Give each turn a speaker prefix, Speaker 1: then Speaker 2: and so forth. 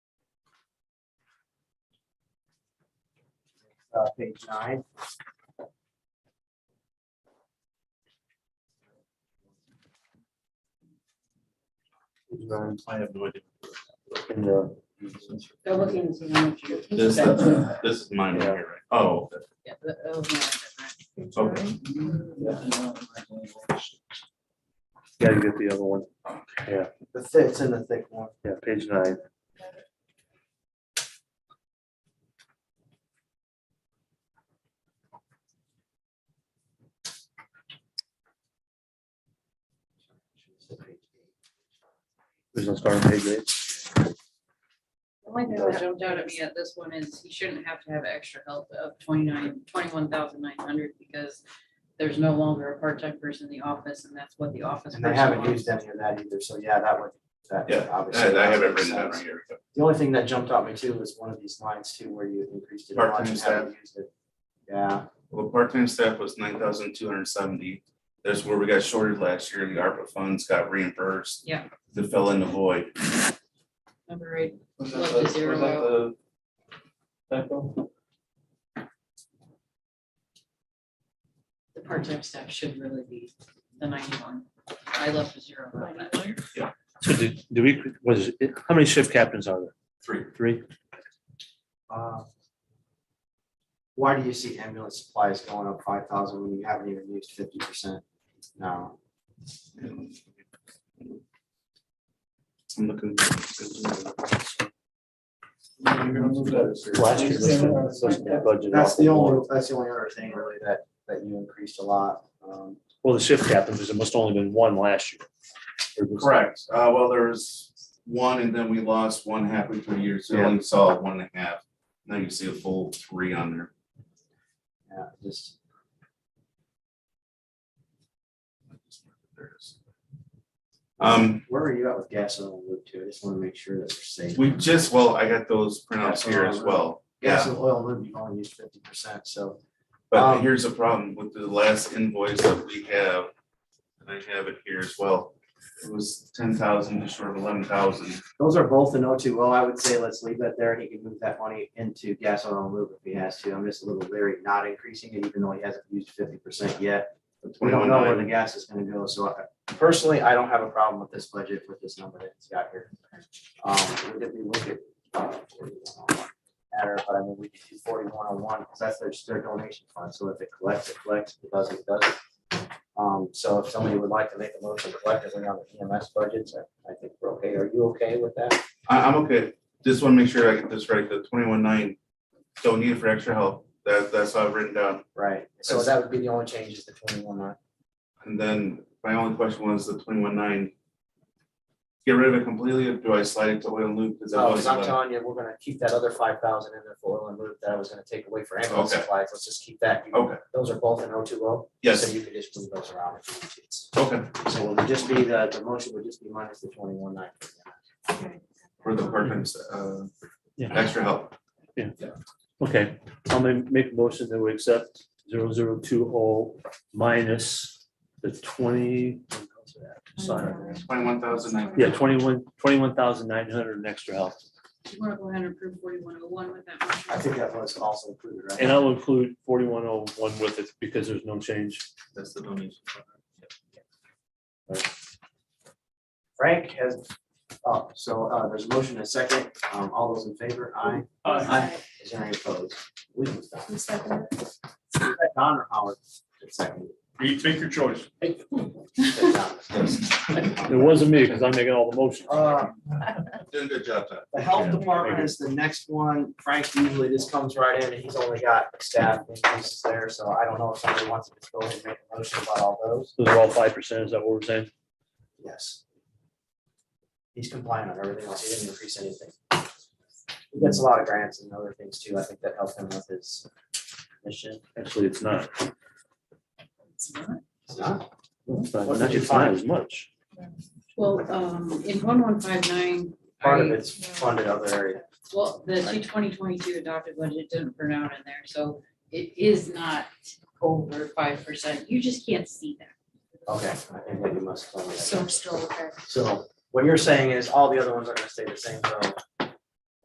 Speaker 1: uh, page nine.
Speaker 2: I have no idea.
Speaker 1: In the-
Speaker 3: They're looking to the next year.
Speaker 2: This,
Speaker 3: That's-
Speaker 2: this is mine right here, right? Oh,
Speaker 3: yeah, the- oh, yeah,
Speaker 2: okay.
Speaker 4: Yeah, you get the other one. Yeah,
Speaker 1: The fits in the thick one.
Speaker 4: yeah, page nine. There's no start on page eight.
Speaker 3: The only thing that jumped out at me at this one is he shouldn't have to have extra help of twenty-nine, twenty-one thousand nine hundred because there's no longer a part-time person in the office and that's what the office.
Speaker 1: And they
Speaker 3: person
Speaker 1: haven't
Speaker 3: wants.
Speaker 1: used any of that either, so yeah, that would, that
Speaker 2: Yeah,
Speaker 1: obviously.
Speaker 2: I I have it
Speaker 1: makes
Speaker 2: written down
Speaker 1: sense.
Speaker 2: right here.
Speaker 1: The only thing that jumped out at me too was one of these lines too, where you increased it. a lot
Speaker 2: Part-time
Speaker 1: and haven't used it. Yeah,
Speaker 2: Well, the part-time staff was nine thousand two hundred seventy. That's where we got shorted last year. The ARPA funds got reimbursed.
Speaker 3: Yeah.
Speaker 2: That fell in the void.
Speaker 3: Number eight,
Speaker 5: Was
Speaker 3: Love
Speaker 5: that
Speaker 3: to
Speaker 5: the- was
Speaker 3: zero
Speaker 5: that the typo?
Speaker 3: the part-time staff should really be the ninety-one. I left a zero on that.
Speaker 4: So did, do we, was it, how many shift captains are there?
Speaker 2: Three.
Speaker 4: Three?
Speaker 1: uh, Why do you see ambulance supplies going up five thousand when you haven't even used fifty percent now?
Speaker 2: I'm looking.
Speaker 5: You're gonna move that as zero.
Speaker 4: Last year, this
Speaker 5: Same
Speaker 4: one,
Speaker 5: amount
Speaker 4: this
Speaker 5: of-
Speaker 4: one, the budget
Speaker 1: That's the
Speaker 4: awful more.
Speaker 1: only, that's the only other thing really that, that you increased a lot. Um,
Speaker 4: Well, the shift captains, because there must only been one last year. Or was-
Speaker 2: Correct. Uh, well, there was one and then we lost one halfway through the year. So I only saw one and a half. Now you see a full three on there.
Speaker 1: yeah, just,
Speaker 2: There it is. Um,
Speaker 1: where were you at with gas and oil loop two? I just wanna make sure that we're safe.
Speaker 2: We just, well, I got those printouts here as well.
Speaker 1: Gas
Speaker 2: Yeah,
Speaker 1: and oil loop, you've only used fifty percent, so
Speaker 2: but here's the problem with the last invoice that we have. And I have it here as well. It was ten thousand, just short of eleven thousand.
Speaker 1: Those are both in O two. Well, I would say let's leave that there and he can move that money into gas oil and lube if he has to. I'm just a little leery not increasing it, even though he hasn't used fifty percent yet. We don't know where the gas is gonna go, so I- personally, I don't have a problem with this budget with this number that it's got here. Um, would it be look at uh, 4101? matter, but I mean, we could do forty-one oh one, because that's their, their donation fund, so if it collects, it collects, if it doesn't, it doesn't. Um, so if somebody would like to make a motion collectively on the EMS budgets, I, I think we're okay. Are you okay with that?
Speaker 2: I, I'm okay. Just want to make sure I get this right. The twenty-one nine, don't need it for extra help. That, that's how I've written down.
Speaker 1: Right, so
Speaker 2: That's-
Speaker 1: that would be the only change is the twenty-one nine.
Speaker 2: And then my only question was the twenty-one nine. Get rid of it completely or do I slide it to oil and lube? Because it
Speaker 1: No, because
Speaker 2: was,
Speaker 1: I'm
Speaker 2: uh,
Speaker 1: telling you, we're gonna keep that other five thousand in there for oil and lube that I was gonna take away for ambulance
Speaker 2: Okay.
Speaker 1: supplies, let's just keep that. You-
Speaker 2: Okay.
Speaker 1: Those are both in O two O. So
Speaker 2: yes,
Speaker 1: you can just move those around if you need to.
Speaker 2: okay,
Speaker 1: So it would just be, the, the motion would just be minus the twenty-one nine.
Speaker 2: for the part-time, uh,
Speaker 4: Yeah.
Speaker 2: extra help.
Speaker 4: Okay, I'm gonna make a motion that we accept zero zero two oh minus the twenty. Sorry.
Speaker 2: Twenty-one thousand nine.
Speaker 4: Yeah, twenty-one, twenty-one thousand nine hundred and extra help.
Speaker 3: Do you want to go ahead and approve forty-one oh one with that
Speaker 1: I
Speaker 3: motion?
Speaker 1: think that was also included, right?
Speaker 2: uh,
Speaker 4: And I'll include forty-one oh one with it because there's no change.
Speaker 2: That's the donation.
Speaker 1: Frank has, oh, so, uh, there's a motion and a second, um, all those in favor, aye.
Speaker 5: Uh,
Speaker 1: Is there any opposed? We can stop.
Speaker 6: Who seconded it?
Speaker 1: Is that Don or Howard? It's second.
Speaker 5: You take your choice.
Speaker 1: It's Don.
Speaker 4: It wasn't me because I'm making all the motions.
Speaker 1: Uh,
Speaker 2: Doing a good job, Todd.
Speaker 1: The health
Speaker 4: Yeah.
Speaker 1: department is the next one. Frank usually just comes right in and he's only got staff increases there, so I don't know if somebody wants to just go ahead and make a motion about all those.
Speaker 4: Those are all five percent, is that what we're saying?
Speaker 1: Yes. He's compliant on everything else. He didn't increase anything. He gets a lot of grants and other things too. I think that helped him with his mission.
Speaker 4: Actually, it's not.
Speaker 3: It's not.
Speaker 1: It's not-
Speaker 4: It's not,
Speaker 1: What did you
Speaker 4: it's not
Speaker 1: find?
Speaker 4: as much.
Speaker 3: Well, um, in one one five nine.
Speaker 1: Part of it's funded other area.
Speaker 3: Well, the two twenty twenty-two adopted budget didn't print out in there, so it is not over five percent. You just can't see that.
Speaker 1: Okay, I think that you must. tell me that.
Speaker 6: So we're still okay.
Speaker 1: So what you're saying is all the other ones are gonna stay the same, so